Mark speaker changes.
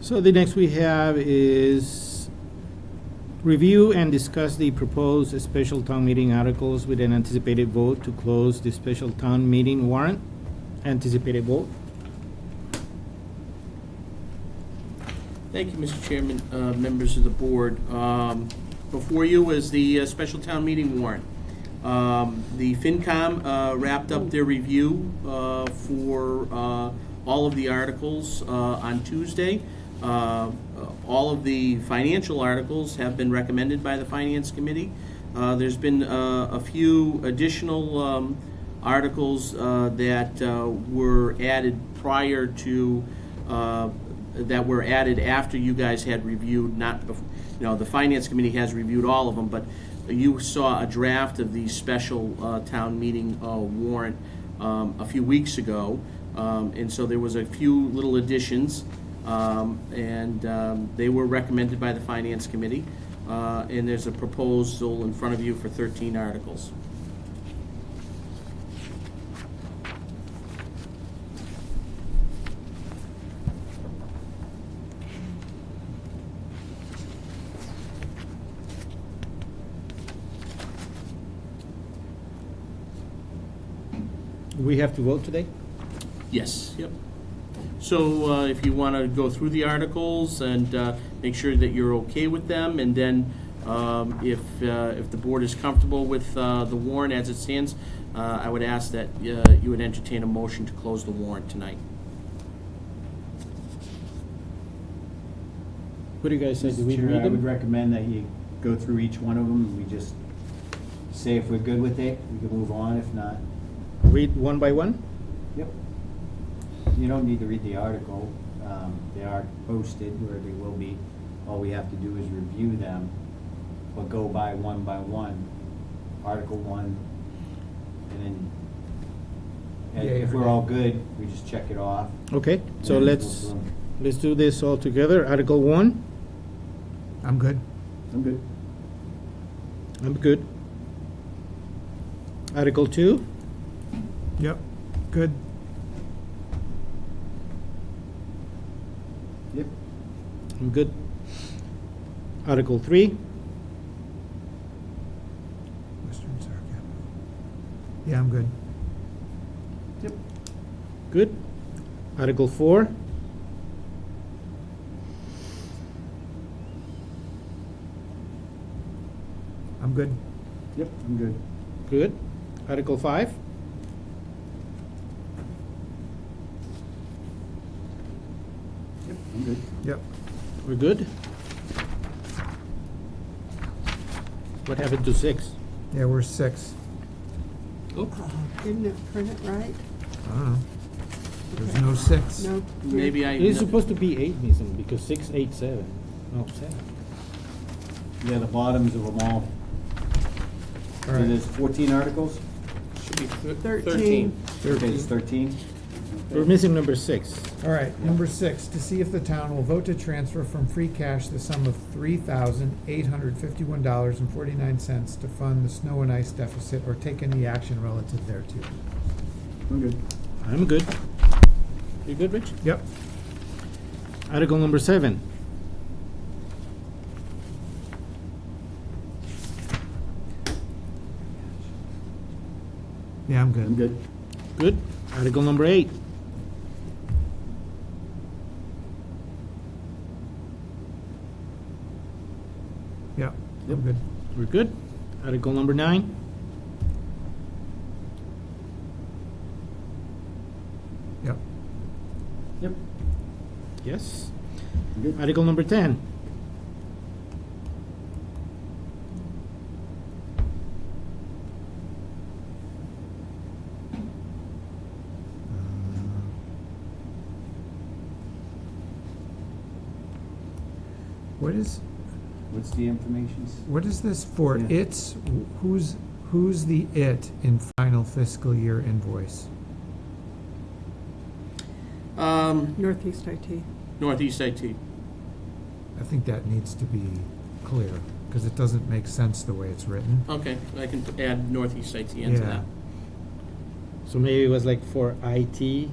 Speaker 1: So the next we have is review and discuss the proposed special town meeting articles with an anticipated vote to close the special town meeting warrant. Anticipated vote.
Speaker 2: Thank you, Mr. Chairman, uh, members of the board. Um, Before you is the uh, special town meeting warrant. Um, The FinCom uh, wrapped up their review uh, for uh, all of the articles uh, on Tuesday. Uh, All of the financial articles have been recommended by the Finance Committee. Uh, There's been uh, a few additional um, articles uh, that uh, were added prior to uh, that were added after you guys had reviewed, not, bef- you know, the finance committee has reviewed all of them, but you saw a draft of the special uh, town meeting uh, warrant um, a few weeks ago, Um, and so there was a few little additions, um, and um, they were recommended by the finance committee, Uh, and there's a proposal in front of you for 13 articles.
Speaker 1: We have to vote today?
Speaker 2: Yes, yep. So uh, if you want to go through the articles and uh, make sure that you're okay with them, and then um, if, uh, if the board is comfortable with uh, the warrant as it stands, uh, I would ask that uh, you would entertain a motion to close the warrant tonight.
Speaker 1: What do you guys say? Do we
Speaker 3: Mr. Chair,
Speaker 1: read
Speaker 3: I would
Speaker 1: them?
Speaker 3: recommend that you go through each one of them, and we just say if we're good with it, we can move on, if not,
Speaker 1: Read one by one?
Speaker 3: yep. You don't need to read the article, um, they are posted where they will be, all we have to do is review them, but go by one by one, Article one, and then, and
Speaker 4: Yeah,
Speaker 3: if
Speaker 4: yeah.
Speaker 3: we're all good, we just check it off.
Speaker 1: Okay, so
Speaker 3: and
Speaker 1: let's,
Speaker 3: we'll-
Speaker 1: let's do this all together. Article one,
Speaker 4: I'm good.
Speaker 3: I'm good.
Speaker 1: I'm good. Article two,
Speaker 4: Yep, good.
Speaker 3: Yep,
Speaker 1: I'm good. Article three,
Speaker 4: Western Reserve Capital. Yeah, I'm good.
Speaker 3: yep,
Speaker 1: good. Article four,
Speaker 4: I'm good.
Speaker 3: yep, I'm good.
Speaker 1: good. Article five,
Speaker 3: Yep, I'm good.
Speaker 4: Yep.
Speaker 1: We're good? What happened to six?
Speaker 4: Yeah, we're six.
Speaker 5: Didn't it print it right?
Speaker 4: I don't know. There's no six.
Speaker 5: No.
Speaker 2: Maybe I.
Speaker 1: It's supposed to be eight, Ms. Lim, because six, eight, seven. No, seven.
Speaker 3: Yeah, the bottoms of them all.
Speaker 4: All
Speaker 3: So
Speaker 4: right.
Speaker 3: there's fourteen articles,
Speaker 2: Should be thir-
Speaker 5: Thirteen.
Speaker 3: page thirteen.
Speaker 1: We're missing number six.
Speaker 4: All right, number six, to see if the town will vote to transfer from free cash the sum of three thousand eight hundred fifty-one dollars and forty-nine cents to fund the snow and ice deficit or take any action relative thereto.
Speaker 3: I'm good.
Speaker 1: I'm good. You good, Rich?
Speaker 4: Yep.
Speaker 1: Article number seven.
Speaker 4: Yeah, I'm good.
Speaker 3: good.
Speaker 1: Good. Article number eight.
Speaker 4: Yep, I'm
Speaker 3: Yep.
Speaker 4: good.
Speaker 1: We're good. Article number nine.
Speaker 4: Yep,
Speaker 3: Yep.
Speaker 1: Yes.
Speaker 3: I'm good.
Speaker 1: Article number ten.
Speaker 4: what is,
Speaker 3: What's the information?
Speaker 4: What is this for?
Speaker 3: Yeah.
Speaker 4: It's, who's, who's the it in final fiscal year invoice?
Speaker 2: Um,
Speaker 5: Northeast IT.
Speaker 2: Northeast IT.
Speaker 4: I think that needs to be clear, because it doesn't make sense the way it's written.
Speaker 2: Okay, I can add Northeast IT into
Speaker 4: Yeah.
Speaker 2: that.
Speaker 1: So maybe it was like for IT